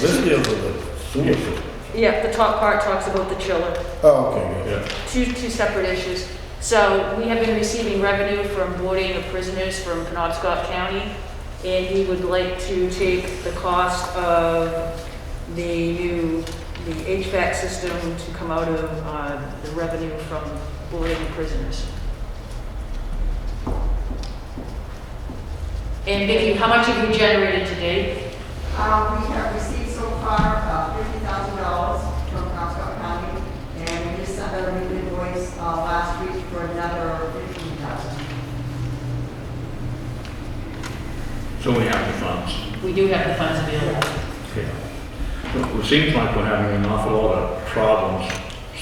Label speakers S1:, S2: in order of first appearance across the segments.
S1: This deals with the sewer system.
S2: Yeah, the top part talks about the chiller.
S1: Oh, okay, yeah.
S2: two, two separate issues. So we have been receiving revenue from boarding of prisoners from Penobscot County, and we would like to take the cost of the new, the HVAC system to come out of uh, the revenue from boarding of prisoners. And Vicki, how much have you generated today?
S3: Um, we have received so far about fifty thousand dollars from Comstock County, and we just sent out a new invoice, uh, last week for another fifteen thousand.
S4: So we have the funds.
S2: We do have the funds available.
S4: Yeah. It seems like we're having an awful lot of problems,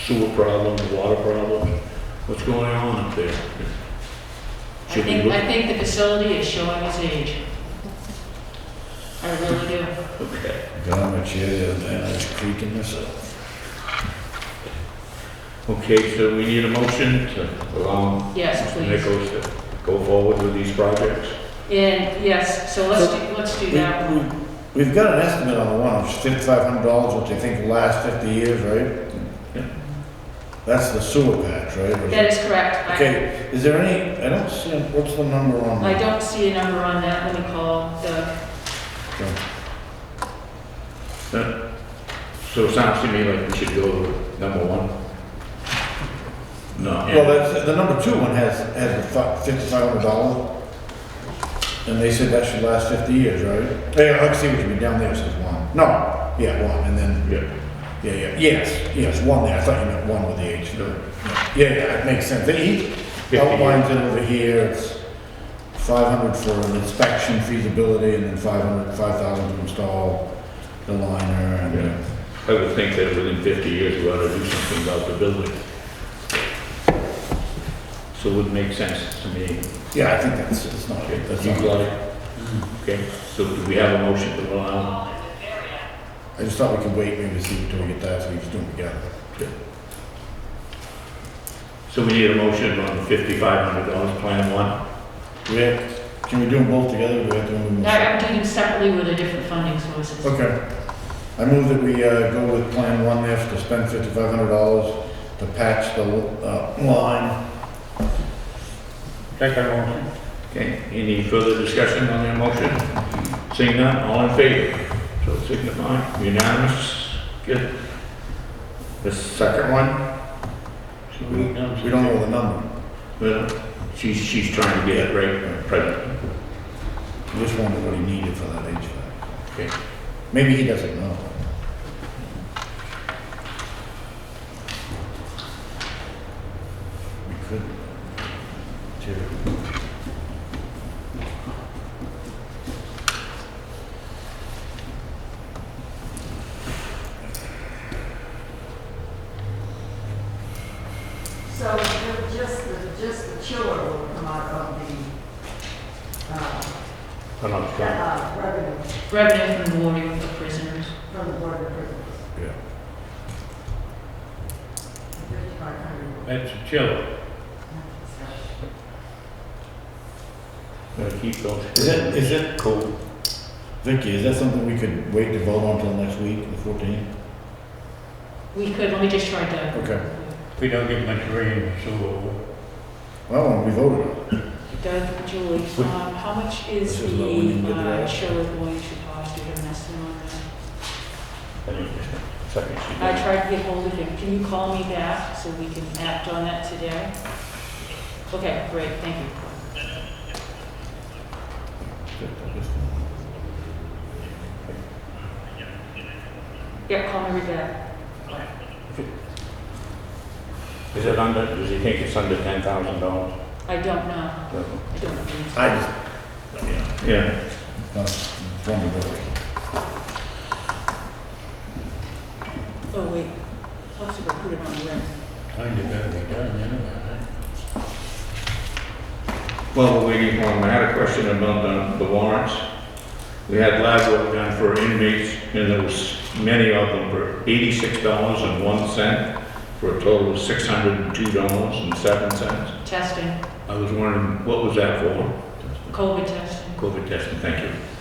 S4: sewer problems, water problems. What's going on up there?
S2: I
S4: Should we
S2: think,
S4: look-
S2: I think the facility is showing its age. I really do.
S4: Okay.
S1: Got on my chair the other day, and I was creaking myself.
S4: Okay, so we need a motion to allow
S2: Yes,
S4: Mr.
S2: please.
S4: Nichols to go forward with these projects?
S2: And yes, so let's do, let's do
S1: We-
S2: that one.
S1: we- We've got an estimate on the one, it's fifty-five hundred dollars, which I think will last fifty years, right?
S4: Yeah.
S1: That's the sewer patch, right? Or is
S2: That
S1: it-
S2: is correct. I,
S1: Okay, is there any, I don't see, it. what's the number on?
S2: I
S1: that?
S2: don't see a number on that. Let me call the,
S1: Okay.
S4: Huh? So it sounds to me like we should go with number one. No.
S1: Well, that's, the number two one has, has a fifty-five hundred dollar. And they said that should last fifty years, right? Hey, let's see what you mean, down there says one. No, yeah, one, and then,
S4: Yeah.
S1: yeah, yeah, yes, yes, one there, I thought you meant one with the H.
S4: No.
S1: Yeah, yeah, it makes sense, he outlines it over here, it's five hundred for an inspection feasibility, and then five hundred, five thousand to install the liner,
S4: Yeah.
S1: and,
S4: I would think that within 50 years, we ought to do something about the building. So it would make sense to me.
S1: yeah, I think that's, it's not,
S4: Okay,
S1: that's
S4: You
S1: not,
S4: got it? Okay, so do we have a motion to allow?
S1: I just thought we could wait, maybe see until we get that, so we just do it together.
S4: So we need a motion on the $5,500 plan one?
S1: We have, can we do them both together, or do we have to move them?
S2: I- I'm doing them separately with the different funding sources.
S1: Okay. I move that we, uh, go with Plan One F to spend fifty-five hundred dollars to patch the, uh, line.
S4: Second motion. Okay, any further discussion on that motion? Seeing none, all in favor? So signify, unanimous, good. The second one?
S1: We don't know the number,
S4: Well, she's, she's trying to get it right, present.
S1: we just wondered what he needed for that HVAC.
S4: Okay.
S1: Maybe he doesn't know. We could. Jerry.
S3: So the- just, the- just the chiller will come out of the, uh,
S4: I'm not sure.
S3: uh, revenue
S2: Revenue from the boarding of prisoners.
S3: from the board of prisons.
S1: Yeah.
S3: Fifty-five hundred.
S4: That's a chiller. Gotta keep those.
S1: Is it, is it,
S4: cool?
S1: Vicky, is that something we could wait to vote on till next week, the fourteenth?
S2: We could, let me just try to.
S1: Okay.
S4: We don't get much rain, so.
S1: Well, we voted on it.
S2: Doug, Julie, um, how much is
S1: This is what we need to
S2: the
S1: do.
S2: uh, chiller going to cost? Do you have an estimate on that?
S4: Second, she
S2: I
S4: did.
S2: tried to get hold of him. Can you call me back so we can act on that today? Okay, great, thank you. Yeah, call me right back.
S4: Is it under, does he think it's under ten thousand dollars?
S2: I don't know. I don't know.
S1: I just,
S4: Yeah.
S1: that's one of those.
S2: Oh, wait. Let's see if I put it on the list.
S4: Kind of gotta be done, Well, we're waiting for him, I had a question about the, the warrants. We had lab work done for inmates, and there was many of them for eighty-six dollars and one cent, for a total of six hundred and two dollars and seven cents.
S2: Testing,
S4: I was wondering, what was that for?
S2: COVID testing.
S4: COVID testing, thank you.